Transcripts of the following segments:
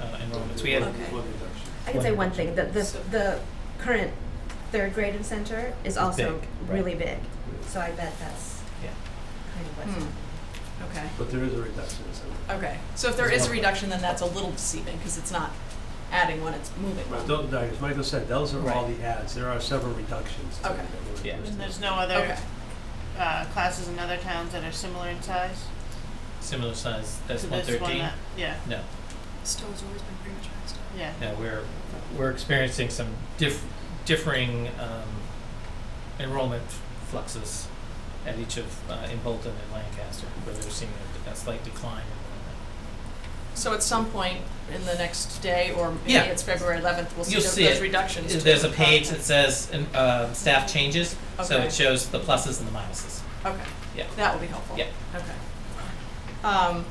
uh, So we had- Okay. One reduction. I can say one thing, that the, the current third grade incentive is also big, right. really big. So I bet that's Yeah. kind of what's. Hmm. Okay, But there is a reduction in some. okay. So if there is a reduction, then that's a little deceiving, because it's not adding one, it's moving But one. tho- no, as Michael said, those are all Right. the ads. There are several reductions. to it Okay. that we're Yeah. listing. And there's no other Okay, uh, classes in other towns that are similar in size similar size, that's to one this one thirteen? that, yeah, No, Stowe's always been pretty much high stuff. yeah. no, we're, we're experiencing some diff, differing, um, enrollment fluxes at each of, uh, in Bolton and Lancaster, where they're seeing a, a slight decline in so at some point in the next day, or maybe Yeah. it's February eleventh, we'll see You'll those see those it. reductions. enrollment. to There's a the page that content. says, um, uh, staff changes, so Okay. it shows the pluses and the minuses. Okay. Yeah. That would be helpful. Yeah. Okay. Um,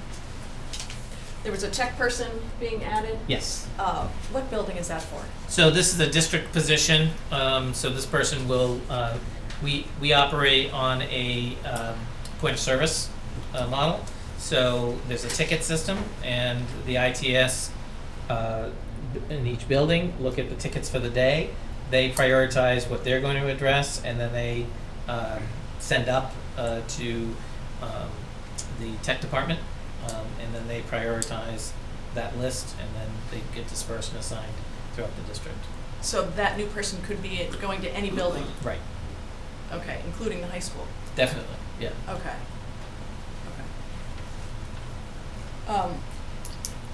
There was a tech person being added. Yes. Uh, What building is that for? So this is a district position, um, so this person will, uh, we, we operate on a, um, point of service, uh, model. So there's a ticket system and the ITS, uh, in each building, look at the tickets for the day. They prioritize what they're going to address and then they, um, send up, uh, to, um, the tech department. Um, and then they prioritize that list and then they get dispersed and assigned throughout the district. So that new person could be going to any building, Right. okay, including the high school, Definitely, yeah. okay. Okay. Um,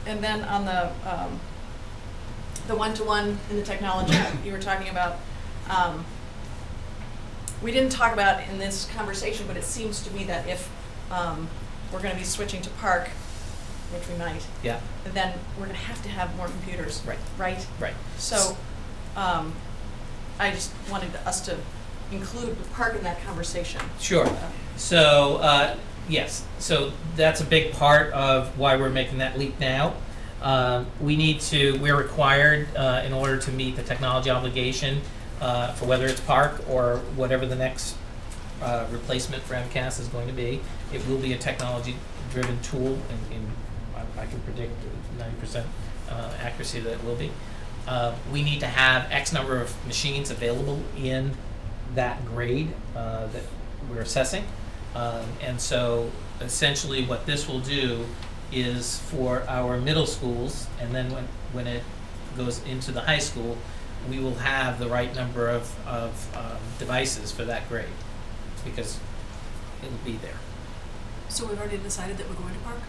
And then on the, um, the one-to-one in the technology you were talking about, um, we didn't talk about in this conversation, but it seems to me that if um, we're gonna be switching to Park, which we might, Yeah, then we're gonna have to have more computers. Right. Right? right. So, um, I just wanted us to include Park in that conversation. Sure. So, uh, yes, so that's a big part of why we're making that leap now. Um, we need to, we're required, uh, in order to meet the technology obligation, uh, for whether it's Park or whatever the next, uh, replacement for MCAS is going to be. It will be a technology-driven tool, and, and I, I can predict ninety percent, uh, accuracy that it will be. Uh, we need to have X number of machines available in that grade, uh, that we're assessing. Um, and so essentially what this will do is for our middle schools, and then when, when it goes into the high school, we will have the right number of, of, um, devices for that grade, because it'll be there. So we've already decided that we're going to park?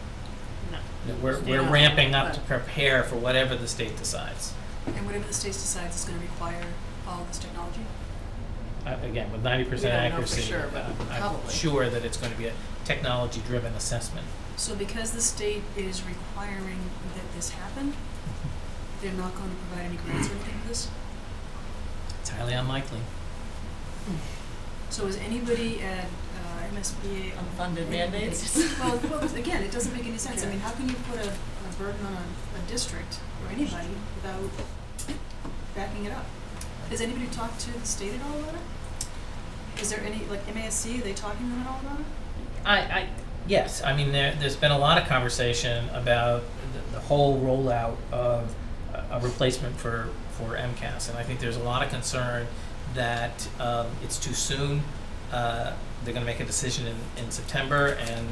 No. That We're, Stay we're on. ramping up to prepare for whatever the state decides. And whatever the state decides is gonna require all this technology? Uh, again, with ninety percent We don't know for accuracy, sure, but uh, I'm probably. sure that it's gonna be a technology-driven assessment. So because the state is requiring that this happen, they're not going to provide any grants or anything for this? It's highly unlikely. So is anybody at uh, MSBA on Unfunded Well, well, again, it doesn't make any sense. I mean, how can you put a, a burden on a, a district or anybody without backing it up? Has anybody talked to the state at all about it? Is there any, like MASC, are they talking to them at all about it? I, I, yes, I mean, there, there's been a lot of conversation about the, the whole rollout of a- a replacement for, for MCAS, and I think there's a lot of concern that, um, it's too soon. Uh, they're gonna make a decision in, in September, and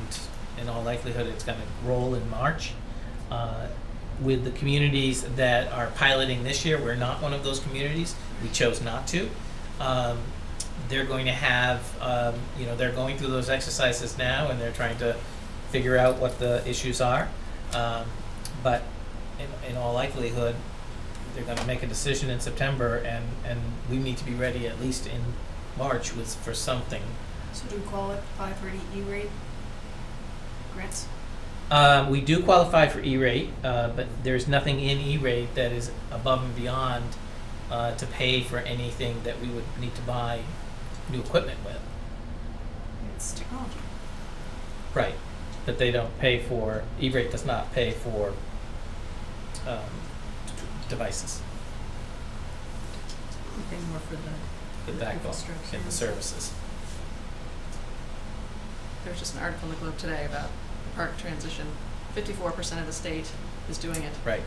in all likelihood, it's gonna roll in March. Uh, with the communities that are piloting this year, we're not one of those communities, we chose not to. Um, they're going to have, um, you know, they're going through those exercises now and they're trying to figure out what the issues are. Um, but in, in all likelihood, they're gonna make a decision in September and, and we need to be ready at least in March with, for something. So do we qualify for any E-rate E grants? Uh, we do qualify for E-rate, uh, but there's nothing in E-rate that is above and beyond, uh, to pay for anything that we would need to buy new equipment with. It's technology. Right, that they don't pay for, E-rate does not pay for um, d- devices, Anything more for the, the backbone Infrastructure. and the services. there was just an article in the Globe today about the park transition. Fifty-four percent of the state is doing it. Right,